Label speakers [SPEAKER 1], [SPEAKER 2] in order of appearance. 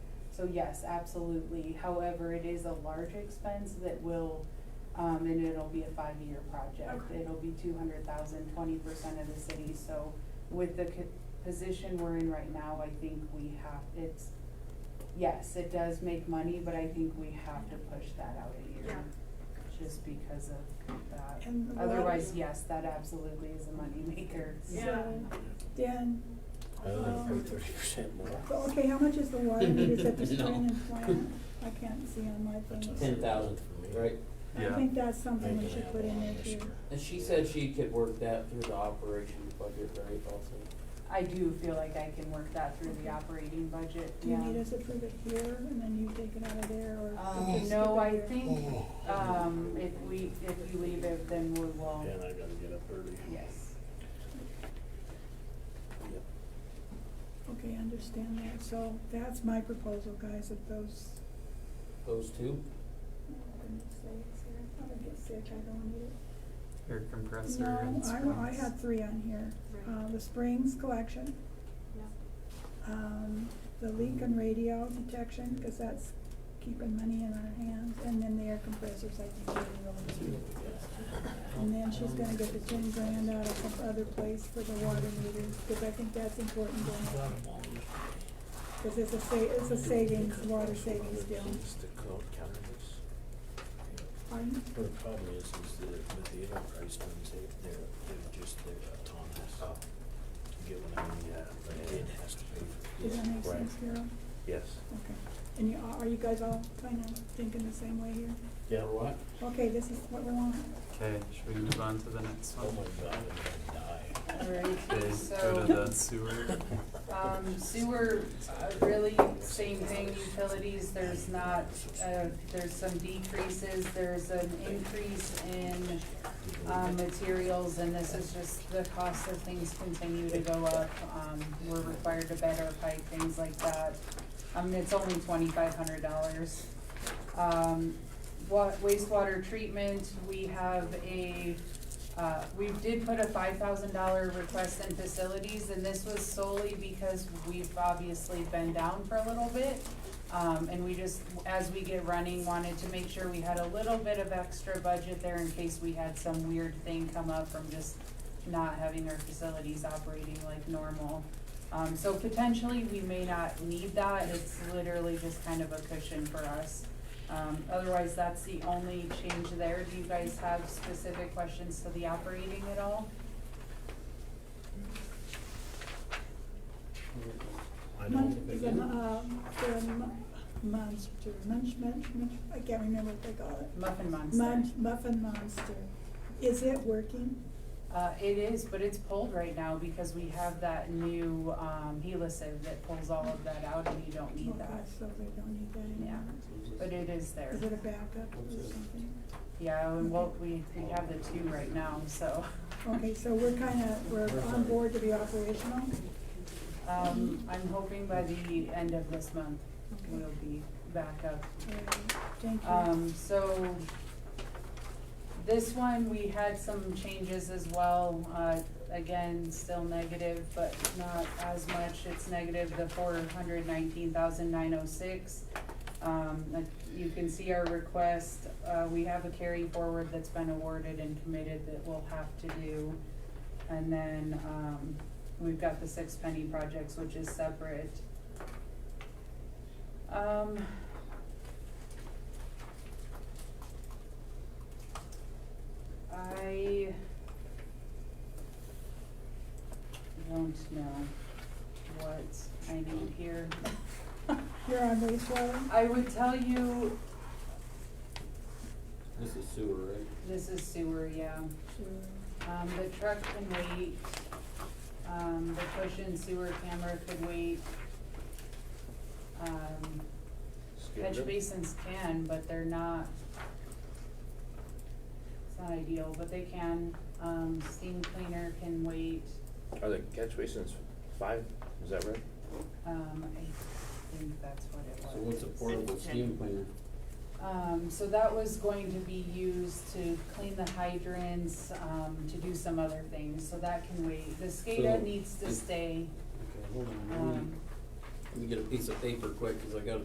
[SPEAKER 1] so yes, absolutely. However, it is a large expense that will, um, and it'll be a five-year project.
[SPEAKER 2] Okay.
[SPEAKER 1] It'll be two hundred thousand, twenty percent of the city, so with the co- position we're in right now, I think we have, it's, yes, it does make money, but I think we have to push that out a year.
[SPEAKER 2] Yeah.
[SPEAKER 1] Just because of that.
[SPEAKER 3] And the water-
[SPEAKER 1] Otherwise, yes, that absolutely is a moneymaker.
[SPEAKER 2] Yeah.
[SPEAKER 3] So, Dan,
[SPEAKER 4] Other than
[SPEAKER 3] um,
[SPEAKER 4] thirty percent more.
[SPEAKER 3] so, okay, how much is the water meters at the Spring and Plant? I can't see on my
[SPEAKER 4] That's
[SPEAKER 3] thing.
[SPEAKER 4] a-
[SPEAKER 5] ten thousand, right?
[SPEAKER 3] I
[SPEAKER 6] Yeah.
[SPEAKER 3] think that's something
[SPEAKER 4] Ain't
[SPEAKER 3] we
[SPEAKER 4] gonna
[SPEAKER 3] should
[SPEAKER 4] have
[SPEAKER 3] put
[SPEAKER 4] a
[SPEAKER 3] in
[SPEAKER 4] lot
[SPEAKER 3] there
[SPEAKER 4] this
[SPEAKER 3] too.
[SPEAKER 4] year.
[SPEAKER 5] And she said she could work that through the operation budget, right, also?
[SPEAKER 1] I do feel like I can work that through the operating budget,
[SPEAKER 3] Do
[SPEAKER 1] yeah.
[SPEAKER 3] you need us to approve it here and then you take it out of there or? we
[SPEAKER 1] Um,
[SPEAKER 3] just
[SPEAKER 1] no,
[SPEAKER 3] skip it
[SPEAKER 1] I
[SPEAKER 3] here?
[SPEAKER 1] think, um, if we, if you leave it, then we will,
[SPEAKER 4] And I gotta get up early.
[SPEAKER 1] yes.
[SPEAKER 4] Yep.
[SPEAKER 3] Okay, understand that. So that's my proposal, guys, of those,
[SPEAKER 5] Those two?
[SPEAKER 3] I'm gonna say it's here. I'm gonna get sick, I don't need it.
[SPEAKER 6] Air compressor
[SPEAKER 3] No,
[SPEAKER 6] and
[SPEAKER 3] I,
[SPEAKER 6] springs.
[SPEAKER 3] wa- I had three on here.
[SPEAKER 2] Right.
[SPEAKER 3] Uh, the Springs collection,
[SPEAKER 2] Yeah.
[SPEAKER 3] um, the leak and radio detection, cause that's keeping money in our hands, and then the air compressors, I think, are really cheap. And then she's gonna get the ten grand out of some other place for the water meters, cause I think that's important going forward. Cause it's a sa- it's a savings, water savings deal.
[SPEAKER 4] It's the cloud counters.
[SPEAKER 3] Pardon?
[SPEAKER 4] The problem is, is that with the enterprise ones, they, they're, they're just, they're autonomous. You Get what I mean, yeah, but it has to pay for it.
[SPEAKER 3] Does that make
[SPEAKER 4] Right.
[SPEAKER 3] sense, Carol?
[SPEAKER 4] Yes.
[SPEAKER 3] Okay. And you, are- are you guys all kinda thinking the same way here?
[SPEAKER 4] Yeah, what?
[SPEAKER 3] Okay, this is what we want.
[SPEAKER 6] Okay, should we move on to the next
[SPEAKER 4] Oh my
[SPEAKER 6] one?
[SPEAKER 4] god, I'm gonna die.
[SPEAKER 1] Alright,
[SPEAKER 6] Okay, go to
[SPEAKER 1] so,
[SPEAKER 6] the sewer.
[SPEAKER 1] um, sewer, uh, really, same thing, utilities, there's not, uh, there's some decreases, there's an increase in, um, materials, and this is just the cost of things continue to go up. Um, we're required to bed our pipe, things like that. I mean, it's only twenty-five hundred dollars. Um, wa- wastewater treatment, we have a, uh, we did put a five thousand dollar request in facilities, and this was solely because we've obviously been down for a little bit. Um, and we just, as we get running, wanted to make sure we had a little bit of extra budget there in case we had some weird thing come up from just not having our facilities operating like normal. Um, so potentially, we may not need that, it's literally just kind of a cushion for us. Um, otherwise, that's the only change there. Do you guys have specific questions to the operating at all?
[SPEAKER 4] I
[SPEAKER 3] Munch,
[SPEAKER 4] don't
[SPEAKER 3] is
[SPEAKER 4] think
[SPEAKER 3] it,
[SPEAKER 4] it-
[SPEAKER 3] um, the mun- monster, munch, munch, munch, I can't remember what they call it.
[SPEAKER 1] Muffin Monster.
[SPEAKER 3] Munch, muffin monster. Is it working?
[SPEAKER 1] Uh, it is, but it's pulled right now because we have that new, um, helicive that pulls all of that out and you don't need
[SPEAKER 3] Okay,
[SPEAKER 1] that.
[SPEAKER 3] So they don't need that anymore.
[SPEAKER 1] But it is there.
[SPEAKER 3] Is it a backup or something?
[SPEAKER 1] Yeah, and what we, we have the two right now, so,
[SPEAKER 3] Okay, so we're kinda, we're on board to be operational?
[SPEAKER 1] um, I'm hoping by the end of this month, we'll
[SPEAKER 3] Okay.
[SPEAKER 1] be back up
[SPEAKER 3] Alright, Thank you.
[SPEAKER 1] Um, so this one, we had some changes as well. Uh, again, still negative, but not as much. It's negative the four hundred nineteen thousand nine oh six. Um, like, you can see our request. Uh, we have a carry forward that's been awarded and committed that we'll have to do. And then, um, we've got the six penny projects, which is separate. Um, I don't know what I need here.
[SPEAKER 3] You're on wastewater?
[SPEAKER 1] I would tell you,
[SPEAKER 5] This is sewer, right?
[SPEAKER 1] this is sewer, yeah.
[SPEAKER 3] Sure.
[SPEAKER 1] Um, the truck can wait, um, the push-in sewer camera could wait. Um, catch basins can, but they're not, it's not ideal, but they can. Um, steam cleaner can wait.
[SPEAKER 7] Are the catch basins five, is that right?
[SPEAKER 1] Um, I think that's what it was.
[SPEAKER 5] So what's a portable steam cleaner?
[SPEAKER 1] Um, so that was going to be used to clean the hydrants, um, to do some other things, so that can wait. The SCADA
[SPEAKER 5] So-
[SPEAKER 1] needs to stay,
[SPEAKER 5] Okay, hold on, let me,
[SPEAKER 1] um,
[SPEAKER 5] let me get a piece of paper quick, cause I gotta